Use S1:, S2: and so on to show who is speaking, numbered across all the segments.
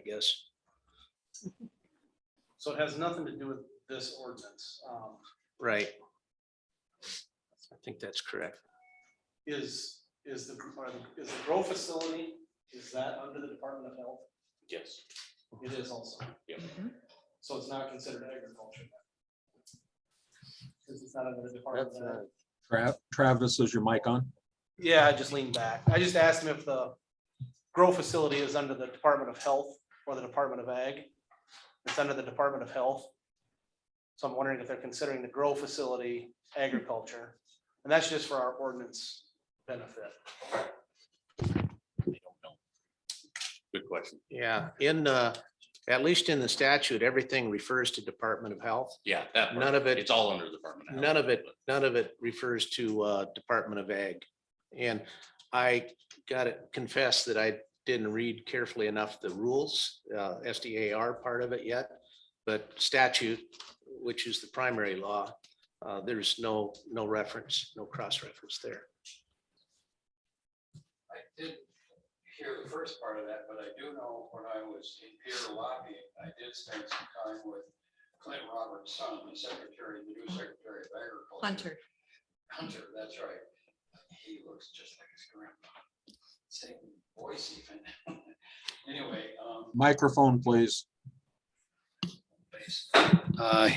S1: guess.
S2: So it has nothing to do with this ordinance. Um,
S1: Right. I think that's correct.
S2: Is, is the, are the- is the grow facility, is that under the Department of Health?
S3: Yes,
S2: It is also.
S3: Yep.
S2: So it's not considered agriculture. Because it's not under the Department of Health.
S4: Tra- Travis, is your mic on?
S2: Yeah, I just leaned back. I just asked him if the grow facility is under the Department of Health or the Department of Ag. It's under the Department of Health. So I'm wondering if they're considering the grow facility agriculture, and that's just for our ordinance benefit.
S3: good question.
S1: Yeah, in, uh, at least in the statute, everything refers to Department of Health.
S3: Yeah, that. part.
S1: None of it-
S3: It's all under the Department. of Health,
S1: None of it,
S3: but
S1: none of it refers to uh, Department of Ag. And I gotta confess that I didn't read carefully enough the rules, uh, SDAR part of it yet. But statute, which is the primary law, uh, there's no, no reference, no cross-reference there.
S5: I didn't hear the first part of that, but I do know when I was in Peter lobbying, I did spend some time with Clint Roberts' son, the secretary, the new secretary of agriculture.
S6: Hunter.
S5: Hunter, that's right. He looks just like his grandpa. Same voice even. Anyway, um,
S4: Microphone, please.
S5: place. Uh,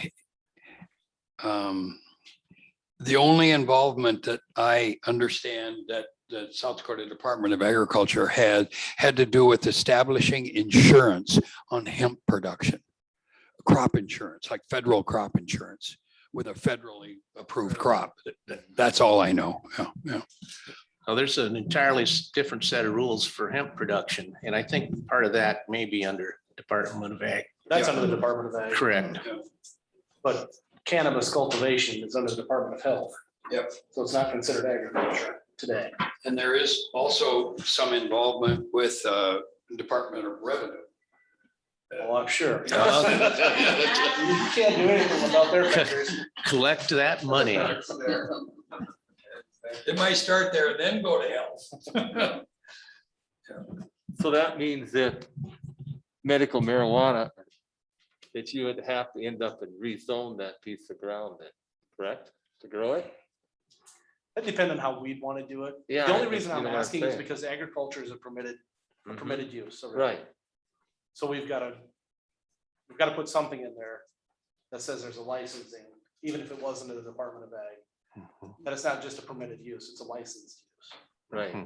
S5: um, The only involvement that I understand that the South Dakota Department of Agriculture had, had to do with establishing insurance on hemp production. Crop insurance, like federal crop insurance with a federally approved crop. Th- th- That's all I know. Yeah, yeah.
S1: Now, Oh, there's an entirely s- different set of rules for hemp production, and I think part of that may be under Department of Ag.
S2: That's under the Department of Ag.
S1: Correct.
S2: But cannabis cultivation is under the Department of Health.
S5: Yep.
S2: So it's not considered agriculture today.
S5: And there is also some involvement with uh, Department of Revenue.
S2: Well, I'm sure. You
S3: Uh-huh.
S2: can't do anything without their fingers.
S1: Collect that money.
S5: They might start there and then go to health.
S7: So that means that medical marijuana, that you would have to end up and rezone that piece of ground then, correct? To grow it?
S2: That depends on how we'd want to do it.
S7: Yeah.
S2: The only
S7: I-
S2: reason
S7: you
S2: I'm
S7: know what
S2: asking is
S7: saying.
S2: because agriculture is a permitted, a
S7: Mhm.
S2: permitted use. so-
S7: Right,
S2: So we've got to, we've got to put something in there that says there's a licensing, even if it wasn't in the Department of Ag. That it's not just a permitted use, it's a licensed use.
S7: right.
S1: Mm-hmm.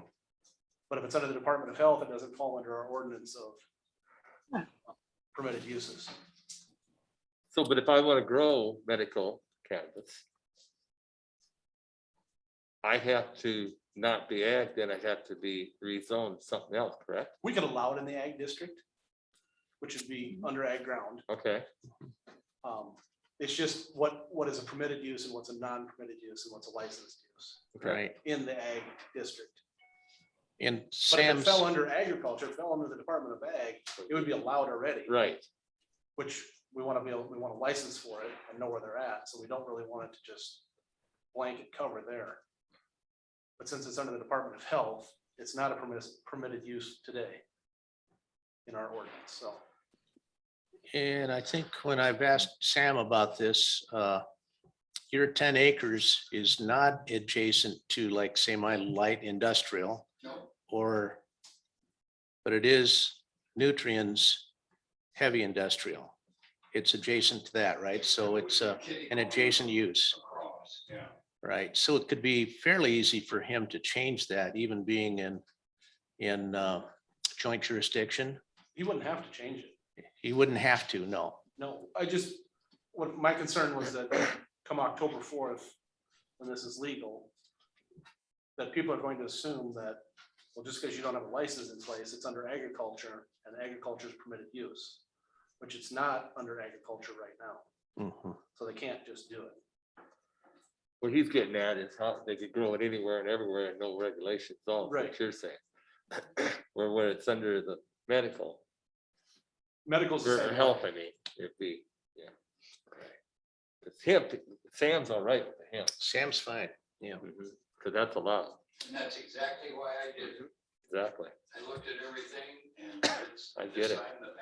S2: But if it's under the Department of Health, it doesn't fall under our ordinance of permitted uses.
S7: So, but if I want to grow medical cannabis, I have to not be ag, then I have to be rezoned something else, correct?
S2: We could allow it in the ag district, which would be under ag ground.
S7: Okay,
S2: Um, It's just what, what is a permitted use and what's a non-permitted use and what's a licensed use
S1: Right,
S2: in the ag district.
S1: and
S2: But if it
S1: Sam's,
S2: fell under agriculture, it fell under the Department of Ag, it would be allowed already.
S7: right.
S2: Which we want to be, able we want a license for it and know where they're at, so we don't really want it to just blanket cover there. But since it's under the Department of Health, it's not a permitted, permitted use today in our ordinance, so.
S1: and I think when I've asked Sam about this, uh, your ten acres is not adjacent to like, say, my light industrial or, but it is nutrients, heavy industrial. It's adjacent to that, right? So it's uh, an adjacent use.
S5: Across, yeah.
S1: Right, so it could be fairly easy for him to change that, even being in, in uh, joint jurisdiction.
S2: You wouldn't have to change it.
S1: He wouldn't have to, no.
S2: No, I just, what my concern was that come October fourth, when this is legal, that people are going to assume that, well, just because you don't have a license in place, it's under agriculture and agriculture is permitted use, which it's not under agriculture right now, so they can't just do it.
S7: What he's getting at is how they could grow it anywhere and everywhere and no regulations, all
S2: Right.
S7: what you're saying. Where, where it's under the medical,
S2: Medical's. the
S7: or or
S2: same.
S7: health, I mean, it'd be, yeah. It's hemp, Sam's all right with the hemp,
S1: Sam's fine, yeah.
S7: because that's a lot,
S5: And that's exactly why I did it.
S7: exactly.
S5: I looked at everything and it's.
S7: I get it.
S5: I'm the